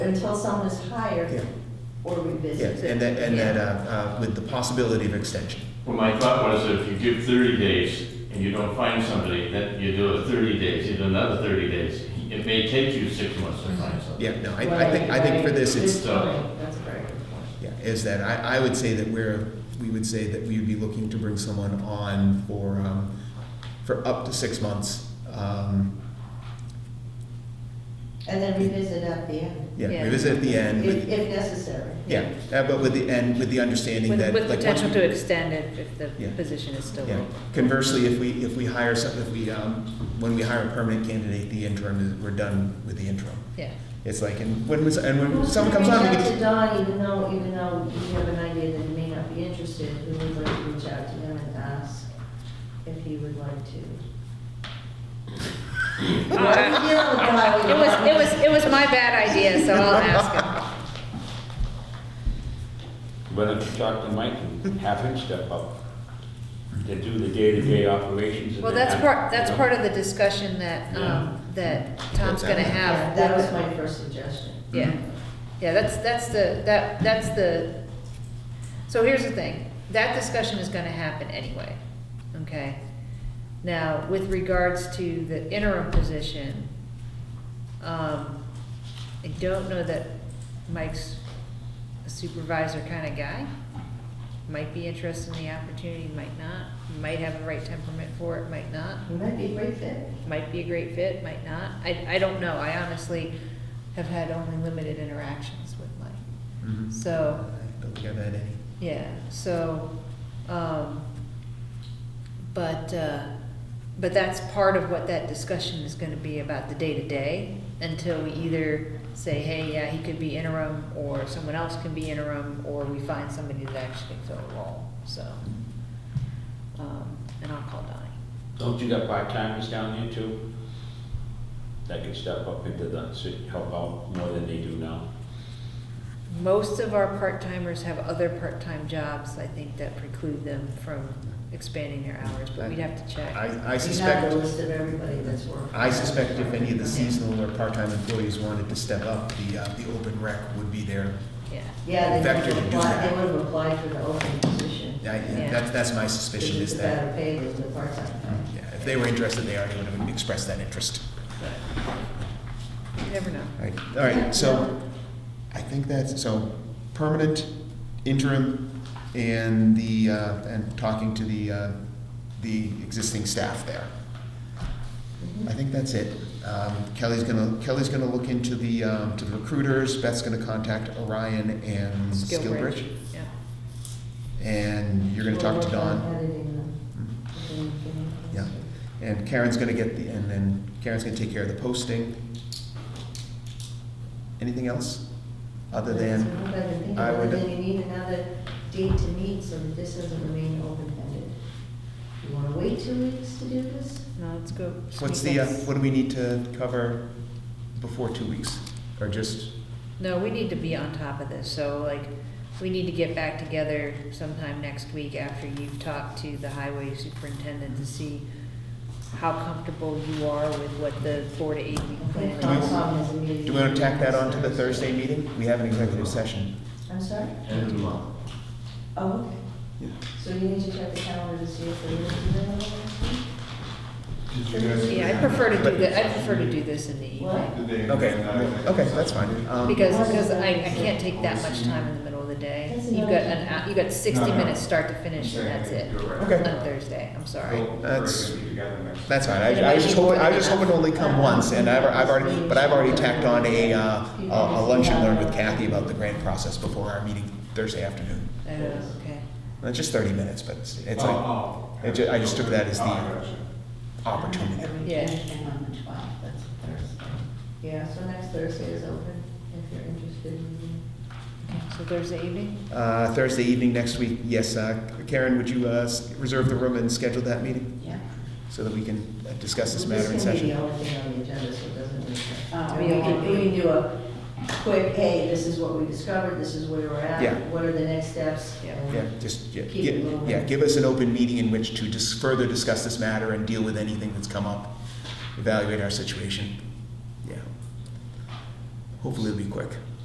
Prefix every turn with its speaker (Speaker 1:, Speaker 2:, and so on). Speaker 1: until someone is hired
Speaker 2: Yeah.
Speaker 1: or
Speaker 2: Yeah,
Speaker 1: revisit.
Speaker 2: and that, and that, uh, uh, with the possibility of extension.
Speaker 3: Well, my thought was if you give thirty days and you don't find somebody, then you do it thirty days, you do another thirty days. It may take you six months to find somebody.
Speaker 2: Yeah, no, I, I think, I think for this, it's,
Speaker 3: So-
Speaker 1: That's great.
Speaker 2: yeah, is that I, I would say that we're, we would say that we would be looking to bring someone on for, um, for up to six months. Um,
Speaker 1: And then revisit at the end,
Speaker 2: yeah,
Speaker 4: Yeah.
Speaker 2: revisit at the
Speaker 1: if,
Speaker 2: end, with-
Speaker 1: if necessary.
Speaker 2: yeah, uh, but with the, and with the understanding
Speaker 4: With,
Speaker 2: that.
Speaker 4: with
Speaker 2: like, once
Speaker 4: potential
Speaker 2: we-
Speaker 4: to extend it if the
Speaker 2: Yeah.
Speaker 4: position is still
Speaker 2: Yeah.
Speaker 4: open.
Speaker 2: Conversely, if we, if we hire some, if we, um, when we hire a permanent candidate, the interim is, we're done with the interim.
Speaker 4: Yeah.
Speaker 2: It's like, and when, was- and when
Speaker 1: Who's
Speaker 2: someone
Speaker 1: gonna
Speaker 2: comes on, we
Speaker 1: reach
Speaker 2: get
Speaker 1: out to
Speaker 2: to
Speaker 1: Don, even though, even though you have an idea that he may not be interested, who would like to reach out to him and ask if he would like to?
Speaker 4: Uh,
Speaker 1: Why are you dealing with Guy?
Speaker 4: It was, it was, it was my bad idea, so I'll ask
Speaker 5: Why don't you talk to Mike and have him step up to do the day-to-day operations?
Speaker 4: him.
Speaker 5: that
Speaker 4: Well,
Speaker 5: they
Speaker 4: that's
Speaker 5: have,
Speaker 4: part, that's
Speaker 5: you know?
Speaker 4: part of the discussion that, um, that Tom's gonna
Speaker 1: Yeah,
Speaker 4: have.
Speaker 1: That was
Speaker 4: with-
Speaker 1: my first suggestion.
Speaker 4: Yeah, yeah, that's, that's the, that, that's the, so here's the thing, that discussion is gonna happen anyway, okay? Now, with regards to the interim position, um, I don't know that Mike's a supervisor kinda guy. Might be interested in the opportunity, might not, might have the right temperament for it, might not
Speaker 1: He might be a great fit.
Speaker 4: might be a great fit, might not. I, I don't know. I honestly have had only limited interactions with Mike.
Speaker 2: Mhm.
Speaker 4: So,
Speaker 2: I Don't think I've had any.
Speaker 4: yeah, so, um, but, uh, but that's part of what that discussion is gonna be about the day-to-day until we either say, hey, yeah, he could be interim, or someone else can be interim, or we find somebody that actually can fill the role, so. Um, and I'll call Donnie.
Speaker 5: Don't you got part-timers down there too? That can step up into the, city, help out more than they do now?
Speaker 4: Most of our part-timers have other part-time jobs, I think, that preclude them from expanding their hours, but we'd have to check.
Speaker 2: I, I
Speaker 1: We have a
Speaker 2: suspect,
Speaker 1: list of everybody that's working.
Speaker 2: I suspect if any of the seasonal or part-time employees wanted to step up, the, uh, the open rec would be there.
Speaker 4: Yeah,
Speaker 1: Yeah, they
Speaker 2: Vector
Speaker 1: would
Speaker 2: to do
Speaker 1: apply,
Speaker 2: that.
Speaker 1: they would have applied for the open position.
Speaker 2: I,
Speaker 4: Yeah.
Speaker 2: that's, that's my
Speaker 1: It's
Speaker 2: suspicion
Speaker 1: just
Speaker 2: is
Speaker 1: a
Speaker 2: that,
Speaker 1: better pay than the part-time guy.
Speaker 2: yeah, if they were interested, they already would have expressed that interest.
Speaker 4: you never know.
Speaker 2: All right, all right, so I think that's, so permanent, interim, and the, uh, and talking to the, uh, the existing staff there. I think that's it. Um, Kelly's gonna, Kelly's gonna look into the, um, to the recruiters, Beth's gonna contact Orion and Skillbridge.
Speaker 4: Yeah,
Speaker 2: And you're gonna
Speaker 1: We'll
Speaker 2: talk to
Speaker 1: work on
Speaker 2: Don.
Speaker 1: editing them. Okay, okay.
Speaker 2: Yeah, and Karen's gonna get the, and then Karen's gonna take care of the posting. Anything else? Other
Speaker 1: That's
Speaker 2: than,
Speaker 1: what I've been thinking.
Speaker 2: I
Speaker 1: Other
Speaker 2: would-
Speaker 1: than you need another date to meet so that this doesn't remain open-ended. You wanna wait two weeks to do this?
Speaker 4: no, let's go.
Speaker 2: what's the, uh, what do we need to cover before two weeks? Or just,
Speaker 4: No, we need to be on top of this, so like, we need to get back together sometime next week after you've talked to the highway superintendent to see how comfortable you are with what the four to eight week
Speaker 1: I
Speaker 4: plan
Speaker 1: think
Speaker 4: is.
Speaker 2: Do we-
Speaker 1: Concom has a meeting.
Speaker 2: do we wanna tack that on to the Thursday meeting? We have an executive session.
Speaker 1: I'm sorry?
Speaker 3: End of the month.
Speaker 1: Oh, okay. So you need to check the calendar to see if they're gonna do
Speaker 4: Yeah, I prefer to do that, I prefer to do this in the
Speaker 1: that.
Speaker 4: evening.
Speaker 1: What?
Speaker 2: Okay, okay, that's fine. Um,
Speaker 4: Because, because I, I can't take that much time in the middle of the day.
Speaker 1: That's
Speaker 4: You've
Speaker 1: another-
Speaker 4: got an, hou- you've got
Speaker 6: No,
Speaker 4: sixty
Speaker 6: no.
Speaker 4: minutes start to finish, and that's it.
Speaker 2: Okay.
Speaker 4: On Thursday, I'm sorry.
Speaker 2: That's-
Speaker 6: That's.
Speaker 2: That's fine, I, I was just hoping, I was just hoping to only come once, and I've, I've already, but I've already tacked on a, uh, a a lunch and learn with Kathy about the grant process before our meeting Thursday afternoon.
Speaker 4: Oh, okay.
Speaker 2: It's just thirty minutes, but it's, it's like it ju- I just took that as the- opportunity.
Speaker 4: Yeah.
Speaker 7: Everything on the twelfth, that's Thursday.
Speaker 1: Yeah, so next Thursday is open if you're interested in.
Speaker 4: Okay, So Thursday evening?
Speaker 2: Uh, Thursday evening next week, yes, uh, Karen, would you, uh, s- reserve the room and schedule that meeting?
Speaker 7: Yeah.
Speaker 2: So that we can uh, discuss this matter in
Speaker 1: This can be the
Speaker 2: session?
Speaker 1: only thing on the agenda, so it doesn't make sense.
Speaker 7: Oh,
Speaker 1: We can,
Speaker 7: okay.
Speaker 1: we can do a quick, hey, this is what we discovered, this is where we're
Speaker 2: Yeah.
Speaker 1: at, what are the next steps?
Speaker 4: Yeah.
Speaker 1: and-
Speaker 2: Yeah, just, yeah,
Speaker 1: Keep it
Speaker 2: gi-
Speaker 1: moving.
Speaker 2: yeah, give us an open meeting in which to just further discuss this matter and deal with anything that's come up, evaluate our situation. Yeah. Hopefully it'll be quick.